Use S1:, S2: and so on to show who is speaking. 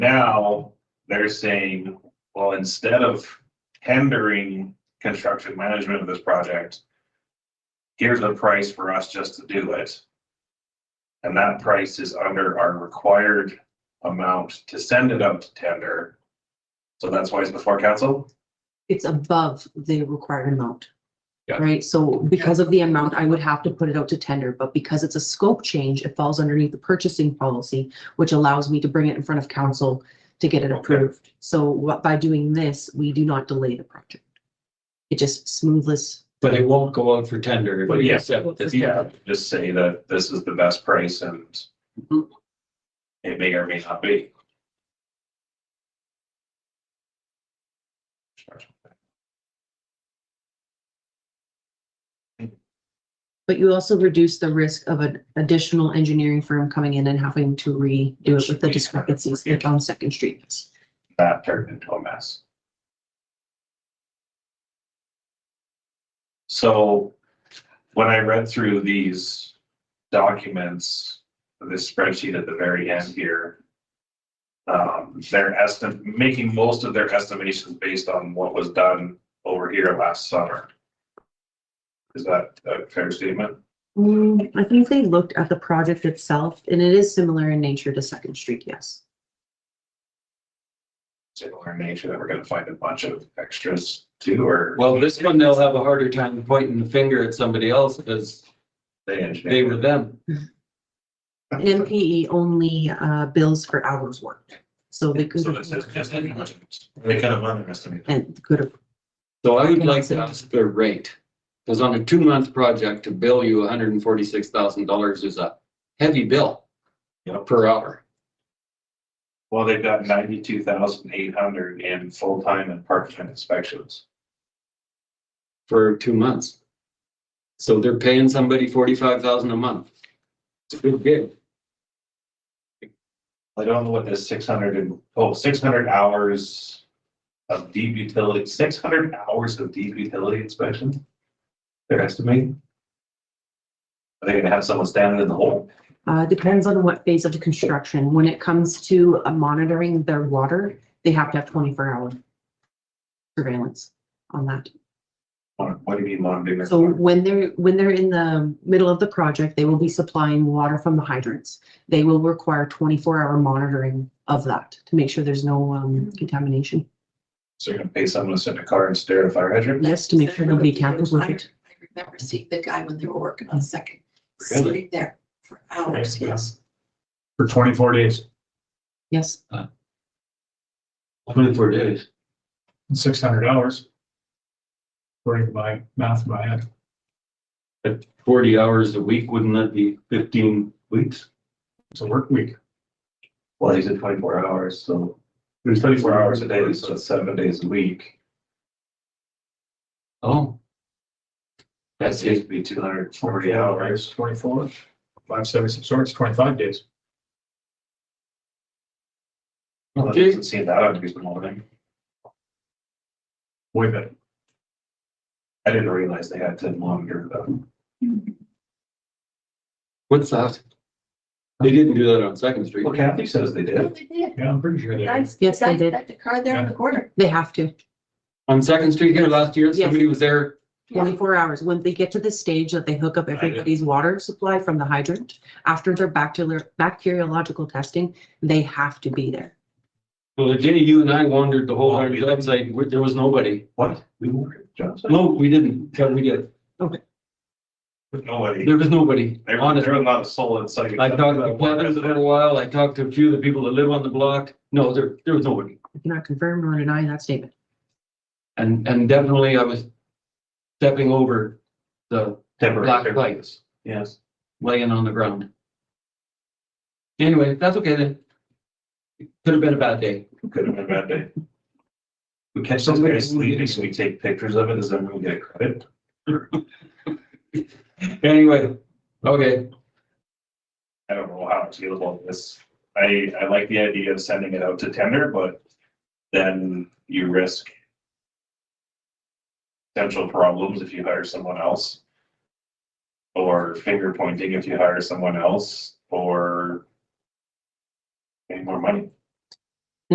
S1: Now, they're saying, well, instead of tendering construction management of this project, here's a price for us just to do it. And that price is under our required amount to send it up to tender. So that's why it's before council?
S2: it's above the required amount.
S1: Yeah.
S2: Right, so because of the amount, I would have to put it out to tender, but because it's a scope change, it falls underneath the purchasing policy, which allows me to bring it in front of council to get it
S1: Okay.
S2: approved. So what, by doing this, we do not delay the project. It just smoothes.
S3: But it won't go out for tender. if
S1: But
S3: we
S1: yeah.
S3: accept this.
S1: Yeah, just say that this is the best price and it may or may not be.
S2: But you also reduce the risk of an additional engineering firm coming in and having to redo it with the discrepancies that on Second Street.
S1: That turned into a mess. So when I read through these documents, this spreadsheet at the very end here, um, they're estim, making most of their estimations based on what was done over here last summer. Is that a fair statement?
S2: Mm, I think they looked at the project itself and it is similar in nature to Second Street, yes.
S1: Similar in nature that we're gonna find a bunch of extras too, or
S3: Well, this one, they'll have a harder time pointing the finger at somebody else because
S1: they
S3: they
S1: engineer.
S3: were them.
S2: NPE E only uh, bills for hours worked, so they could.
S1: So this is just. They kind of underestimated.
S2: And could have,
S3: So I would like to ask their rate. Because on a two-month project, to bill you hundred and forty-six thousand dollars is a heavy bill
S1: Yep.
S3: per hour.
S1: Well, they've got ninety-two thousand eight hundred in full-time and part-time inspections.
S3: for two months. So they're paying somebody forty-five thousand a month. It's a good gig.
S1: I don't know what this six hundred and, oh, six hundred hours of deep utility, six hundred hours of deep utility inspection? They're estimating? Are they gonna have someone standing in the hole?
S2: uh, depends on what phase of the construction. When it comes to uh, monitoring their water, they have to have twenty-four hour surveillance on that.
S1: What do you mean monitoring? their
S2: So
S1: water?
S2: when they're, when they're in the middle of the project, they will be supplying water from the hydrants. They will require twenty-four hour monitoring of that to make sure there's no um, contamination.
S1: So you're gonna pay someone to sit in a car and stare at a fire hydrant?
S2: Yes, to make sure nobody tampers with it.
S4: I remember seeing the guy when they were working on second,
S1: Really?
S4: sitting there for hours,
S1: Yeah.
S4: yes.
S1: For twenty-four days.
S2: Yes.
S3: Twenty-four days.
S5: six hundred dollars. According to my math, in my head,
S3: Forty hours a week, wouldn't that be fifteen weeks?
S5: it's a work week.
S1: Well, he said twenty-four hours, so there's twenty-four hours a day, so it's seven days a week.
S3: Oh.
S1: That
S3: That's
S1: seems
S3: it.
S1: to be two hundred and forty hours.
S5: Twenty-four, five seventy-six, so it's twenty-five days.
S1: Well, it
S3: Okay,
S1: doesn't seem that unreasonable to me.
S5: Way better.
S1: I didn't realize they had to monitor them.
S3: what's that? They didn't do that on Second Street.
S1: Well, Kathy says they
S4: Oh,
S1: did.
S4: they did.
S5: Yeah, I'm pretty sure they.
S4: Guys,
S2: Yes, they
S4: guys
S2: did.
S4: left The car there in the corner.
S2: They have to.
S3: On Second Street here last year, somebody was there.
S2: twenty-four hours, when they get to the stage that they hook up everybody's water supply from the hydrant, after their bacterial, bacteriological testing, they have to be there.
S3: Well, Jenny, you and I wandered the
S1: Oh,
S3: whole hundred yards, like, w- there was nobody.
S1: What? We were, Johnson?
S3: No, we didn't. Yeah, we did.
S1: Nobody.
S3: There was nobody.
S1: They were,
S3: Honest.
S1: they were not a soul in sight.
S3: I talked to Kevin for a little while. I talked to a few of the people that live on the block. No, there, there was nobody.
S2: I cannot confirm nor deny that statement.
S3: And, and definitely I was stepping over the black
S1: Temporary.
S3: lights
S1: Yes.
S3: laying on the ground. Anyway, that's okay then. Could have been a bad day.
S1: Could have been a bad day. We catch those guys sleeping, so we take pictures of it, does everyone get credit?
S3: Anyway, okay,
S1: I don't know how to feel about this. I, I like the idea of sending it out to tender, but then you risk potential problems if you hire someone else. Or finger pointing if you hire someone else, or pay more money.